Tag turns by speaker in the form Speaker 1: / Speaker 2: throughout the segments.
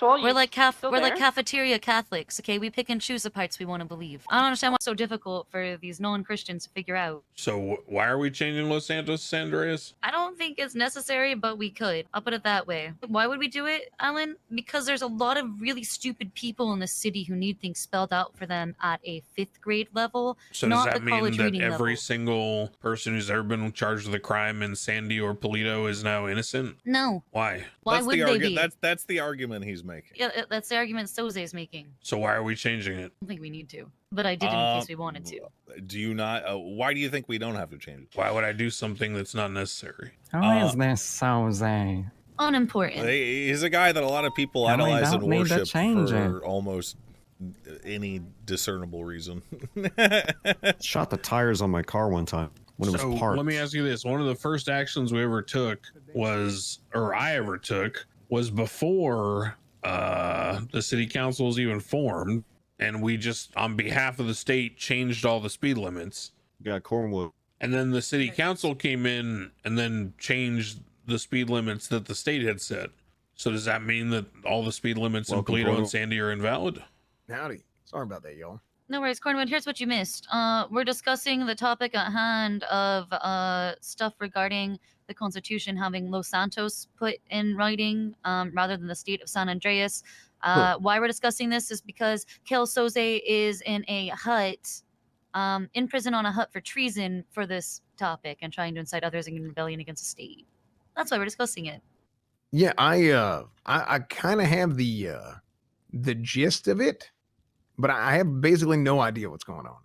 Speaker 1: all you.
Speaker 2: We're like caf-
Speaker 1: still
Speaker 2: we're like
Speaker 1: there?
Speaker 2: cafeteria Catholics, okay? We pick and choose the parts we want to believe. I don't understand why it's so difficult for these non-Christians to figure out.
Speaker 3: So wh- why are we changing Los Santos to San Andreas?
Speaker 2: I don't think it's necessary, but we could. I'll put it that way. Why would we do it, Alan? Because there's a lot of really stupid people in the city who need things spelled out for them at a fifth grade level.
Speaker 3: So
Speaker 2: Not
Speaker 3: does
Speaker 2: the
Speaker 3: that mean
Speaker 2: college
Speaker 3: that
Speaker 2: reading
Speaker 3: every
Speaker 2: level.
Speaker 3: single person who's ever been charged with a crime in Sandy or Polito is now innocent?
Speaker 2: No.
Speaker 3: Why?
Speaker 2: Why
Speaker 4: that's
Speaker 2: would
Speaker 4: the
Speaker 2: they
Speaker 4: argu-
Speaker 2: be?
Speaker 4: That's that's the argument he's making.
Speaker 2: Yeah, uh, that's the argument Soze's making. I
Speaker 3: So why are we changing it?
Speaker 2: don't think we need to, but I did in
Speaker 4: Uh,
Speaker 2: case we wanted to.
Speaker 4: Do you not? Uh, why do you think we don't have to change it?
Speaker 3: Why would I do something that's not necessary?
Speaker 4: Uh,
Speaker 5: How is this so Zay?
Speaker 2: Unimportant.
Speaker 4: He- He's a guy that a lot of people
Speaker 5: No, we
Speaker 4: idolize and
Speaker 5: don't need to
Speaker 4: worship
Speaker 5: change
Speaker 4: for almost any discernible reason.
Speaker 6: Shot the tires on my car one time when it was
Speaker 3: so
Speaker 6: parked.
Speaker 3: let me ask you this: one of the first actions we ever took was, or I ever took, was before uh, the city council was even formed, and we just, on behalf of the state, changed all the speed limits.
Speaker 6: Yeah, Cornwood.
Speaker 3: And then the city council came in and then changed the speed limits that the state had set. So does that mean that all the speed limits
Speaker 6: Welcome,
Speaker 3: in Polito
Speaker 6: Bruno.
Speaker 3: and Sandy are invalid?
Speaker 7: Howdy. Sorry about that, y'all.
Speaker 2: No worries, Cornwood. Here's what you missed. Uh, we're discussing the topic at hand of uh, stuff regarding the Constitution having Los Santos put in writing um, rather than the state of San Andreas. Uh, Why we're discussing this is because Kel Soze is in a hut, um, in prison on a hut for treason for this topic and trying to incite others in rebellion against the state. That's why we're discussing it.
Speaker 7: Yeah, I uh I, I kinda have the uh the gist of it, but I I have basically no idea what's going on.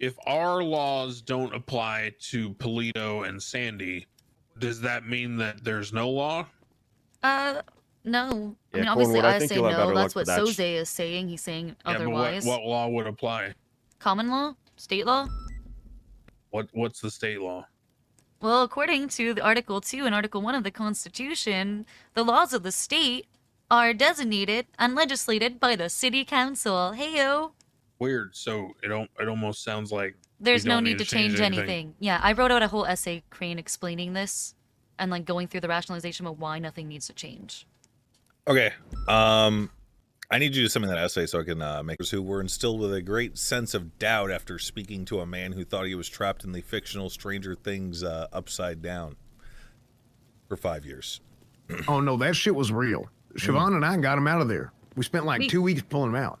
Speaker 3: If our laws don't apply to Polito and Sandy, does that mean that there's no law?
Speaker 2: Uh, no. I
Speaker 6: Yeah,
Speaker 2: mean, obviously,
Speaker 6: Cornwood, I
Speaker 2: I,
Speaker 6: think
Speaker 2: say
Speaker 6: you'll have
Speaker 2: no.
Speaker 6: better
Speaker 2: That's
Speaker 6: luck
Speaker 2: what
Speaker 6: with that sh-
Speaker 2: Soze is saying. He's saying otherwise.
Speaker 3: Yeah, but what, what law would apply?
Speaker 2: common law, state law?
Speaker 3: What what's the state law?
Speaker 2: Well, according to the Article 2 and Article 1 of the Constitution, the laws of the state are designated and legislated by the city council. Heyo.
Speaker 3: Weird. So it al- it almost sounds like
Speaker 2: There's no
Speaker 3: don't
Speaker 2: need to change, anything. Yeah, I wrote out a whole essay, Crane, explaining this and like going through the rationalization of why nothing needs to change.
Speaker 4: okay. Um, I need you to send me that essay so I can uh, make who were instilled with a great sense of doubt after speaking to a man who thought he was trapped in the fictional Stranger Things uh, upside down for five years.
Speaker 7: oh no, that shit was real. Siobhan and I got him out of there. We spent like
Speaker 2: We-
Speaker 7: two weeks pulling him out.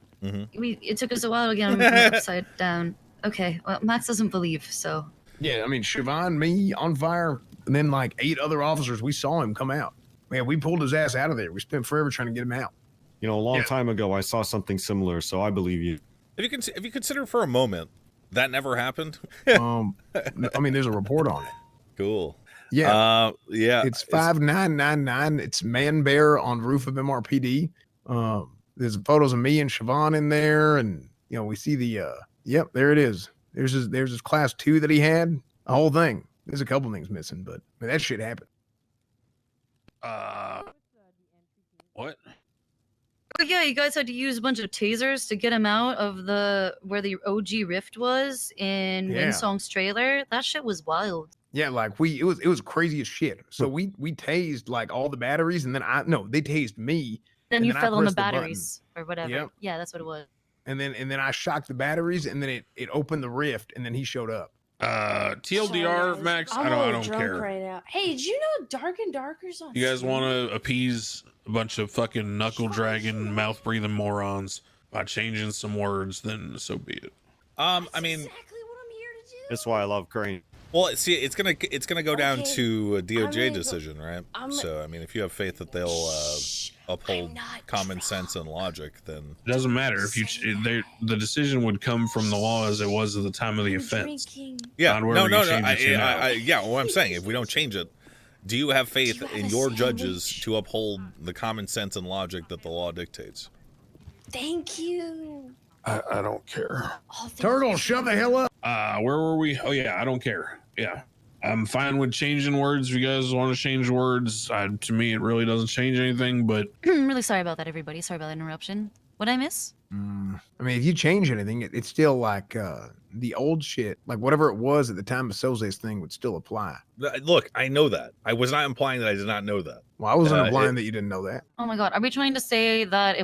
Speaker 2: We It took us a while to get them upside down. Okay, well, Max doesn't believe, so.
Speaker 7: Yeah, I mean Siobhan, me on fire, and then like eight other officers, we saw him come out. Man, we pulled his ass out of there. We spent forever trying to get him out.
Speaker 6: You know, a long
Speaker 7: Yeah.
Speaker 6: time ago, I saw something similar, so I believe you.
Speaker 4: If you can, if you consider for a moment that never happened,
Speaker 7: Um I mean there's a report on it.
Speaker 4: cool.
Speaker 7: Yeah.
Speaker 4: Uh, yeah.
Speaker 7: it's five nine nine nine. It's man bear on roof of MRPD. Um, there's photos of me and Siobhan in there, and you know we see the uh, yep, there it is. There's his there's his class two that he had. The whole thing. There's a couple things missing, but I mean, that shit happened.
Speaker 3: Uh what?
Speaker 2: Oh yeah, you guys had to use a bunch of tasers to get him out of the where the OG rift was in
Speaker 7: Yeah.
Speaker 2: Winsong's trailer. That shit was wild.
Speaker 7: Yeah, like we it was it was crazy as shit. So we we tased like all the batteries, and then I no they tased me,
Speaker 2: Then
Speaker 7: And
Speaker 2: you
Speaker 7: then I
Speaker 2: fell on the
Speaker 7: pressed the button.
Speaker 2: batteries or whatever.
Speaker 7: Yep.
Speaker 2: Yeah, that's what it was.
Speaker 7: and then and then I shocked the batteries, and then it it opened the rift, and then he showed up.
Speaker 3: Uh TLDR
Speaker 8: Sorry,
Speaker 3: Max,
Speaker 8: I'm
Speaker 3: I don't I
Speaker 8: all
Speaker 3: don't
Speaker 8: drunk
Speaker 3: care.
Speaker 8: Right now. Hey, did you know Dark and Darker's on?
Speaker 3: You guys want to appease a bunch of fucking knuckle dragging, mouth breathing morons by changing some words, then so be it.
Speaker 4: Um, I mean,
Speaker 8: exactly what I'm here to do.
Speaker 6: That's why I love Crane.
Speaker 4: well, see, it's gonna it's gonna go down
Speaker 8: Okay,
Speaker 4: to a
Speaker 8: gonna
Speaker 4: DOJ
Speaker 8: go-
Speaker 4: decision, right?
Speaker 8: I'm-
Speaker 4: so, I mean, if you have faith that they'll uh,
Speaker 8: Shh, I'm
Speaker 4: uphold
Speaker 8: not
Speaker 4: common
Speaker 8: drunk.
Speaker 4: sense and logic, then
Speaker 3: It doesn't matter if you ch- they, the decision would come from the law as it was at the time of the
Speaker 8: I'm
Speaker 3: offense.
Speaker 8: drinking.
Speaker 4: yeah,
Speaker 3: Not
Speaker 4: no,
Speaker 3: where
Speaker 4: no,
Speaker 3: you
Speaker 4: no,
Speaker 3: change
Speaker 4: I,
Speaker 3: it to
Speaker 4: I,
Speaker 3: now.
Speaker 4: I- yeah. What I'm saying, if we don't change it, do you have faith
Speaker 8: Do you have
Speaker 4: in
Speaker 8: a
Speaker 4: your judges
Speaker 8: sandwich?
Speaker 4: to uphold the common sense and logic that the law dictates?
Speaker 8: Thank you.
Speaker 3: I, I don't care.
Speaker 8: Oh, thank
Speaker 7: Turtle,
Speaker 8: you.
Speaker 7: shove the hell up.
Speaker 3: Uh, where were we? Oh yeah, I don't care. Yeah, I'm fine with changing words. If you guys want to change words, I, to me it really doesn't change anything. But
Speaker 2: I'm really sorry about that, everybody. Sorry about that interruption. What I miss?
Speaker 7: Mm, I mean, if you change anything, it, it's still like uh, the old shit. Like whatever it was at the time of Soze's thing would still apply.
Speaker 4: Th- Look, I know that. I was not implying that I did not know that.
Speaker 7: Well, I wasn't
Speaker 4: Uh, it-
Speaker 7: implying that you didn't know that.
Speaker 2: Oh my god, are we trying to say that if